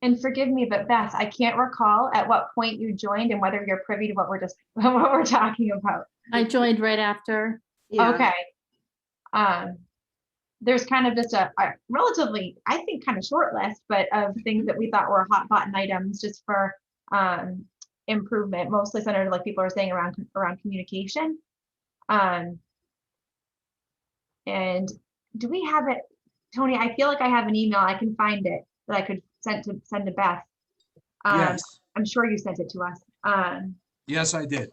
And forgive me, but Beth, I can't recall at what point you joined and whether you're privy to what we're just, what we're talking about. I joined right after. Yeah. Okay. Um, there's kind of just a a relatively, I think, kind of short list, but of things that we thought were hot button items just for um improvement, mostly centered, like people are saying, around around communication. Um. And do we have it, Tony? I feel like I have an email. I can find it that I could send to send to Beth. Um, Yes, I'm sure you sent it to us. Um, yes, I did.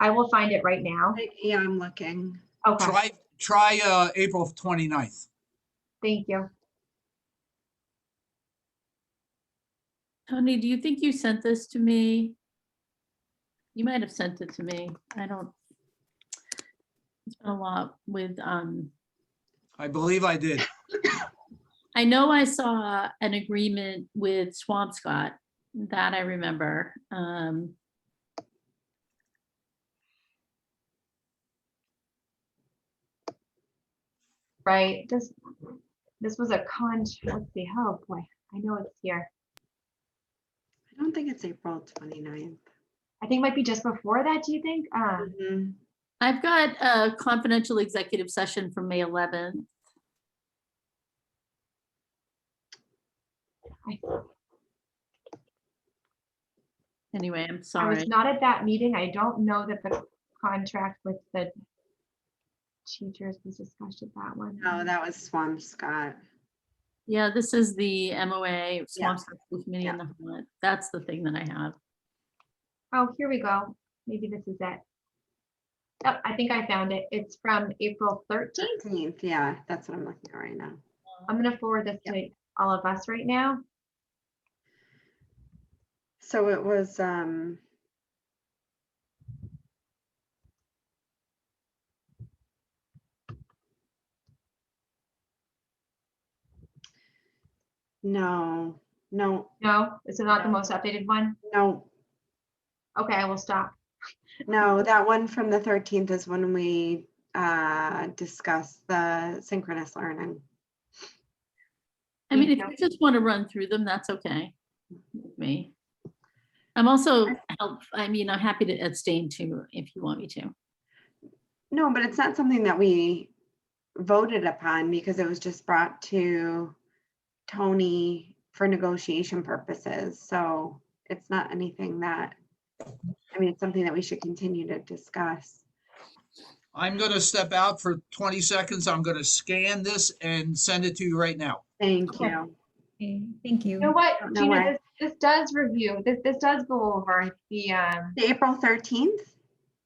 I will find it right now. I- Yeah, I'm looking. Okay, Try, try uh, April 29th. thank you. Tony, do you think you sent this to me? You might have sent it to me. I don't. It's been a lot with, um, I believe I did. I know I saw an agreement with Swampscott that I remember. Um, right? This, this was a con, let's see, oh boy, I know it's here. I don't think it's April 29th. I think it might be just before that, do you think? Uh, Mhm. I've got a confidential executive session for May 11th. Anyway, I'm I sorry. was not at that meeting. I don't know that the contract with the teachers was discussed at that one. No, that was Swampscott. Yeah, this is the MOA, Swampscott School Committee in the Hamlet. That's the thing that I have. Oh, here we go. Maybe this is it. Oh, I think I found it. It's from April thirteenth. 13th, yeah, that's what I'm looking at right now. I'm gonna forward this to all of us right now. So it was, um, no, no, No, this is not the No. most updated one. no, Okay, I will stop. no, that one from the 13th is when we, uh, discussed the synchronous learning. I Me mean, if too. you just want to run through them, that's okay. with Me. I'm also, help. I mean, I'm happy to abstain too, if you want me to. No, but it's not something that we voted upon because it was just brought to Tony for negotiation purposes. So it's not anything that, I mean, it's something that we should continue to discuss. I'm going to step out for 20 seconds. I'm going to scan this and send it to you right now. Thank Okay. you. Okay, thank you. You know what, don't know Gina, why. this, this does review, this, this does go over the, um, The April 13th?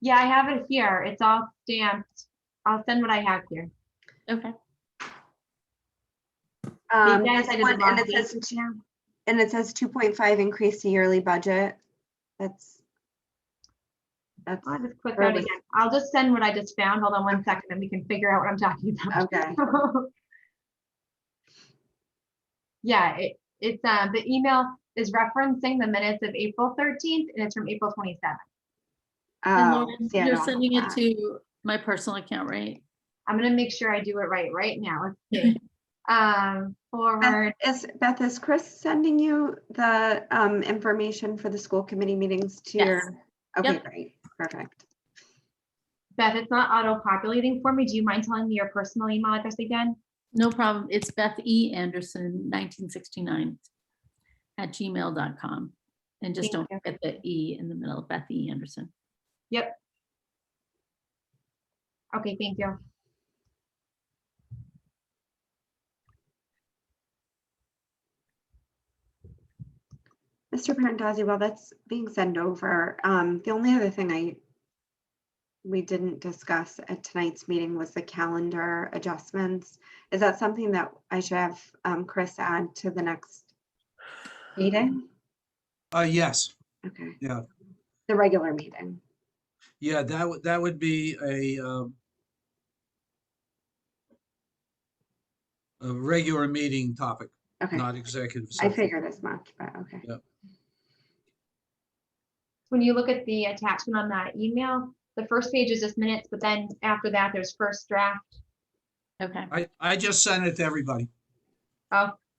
yeah, I have it here. It's all stamped. I'll send what I have here. Okay. Um, Maybe I this decided the one, wrong And it date. says, two- and it says 2.5 increase the yearly budget. That's, that's, I'll just click Or out was- again. I'll just send what I just found. Hold on one second and we can figure out what I'm talking about. okay. Yeah, it, it's, uh, the email is referencing the minutes of April thirteenth and it's from April twenty-seventh. And Oh, Lauren, see, I You're don't have sending it that. to my personal account, right? I'm gonna make sure I do it right, right now. Let's see. Um, forward, Beth, Is, Beth, is Chris sending you the um, information for the school committee meetings to Yes. your? Okay, Yep. great, perfect. Beth, it's not auto-populating for me. Do you mind telling me your personal email address again? No problem. It's Beth E. Anderson, 1969 at gmail.com. And just Thank don't you. forget the E in the middle, Beth E. Anderson. Okay, thank you. Mr. Parentazzi, while that's being sent over, um, the only other thing I we didn't discuss at tonight's meeting was the calendar adjustments. Is that something that I should have um, Chris add to the next meeting? Uh, yes, Okay. Um, Yeah. The regular meeting. yeah, that would, that would be a, um, a regular meeting topic, Okay, not executive. I session. figured as much, but okay. When you look at the attachment on that email, the first page is just minutes, but then after that, there's first draft. Okay. I, I just sent it to everybody. Oh,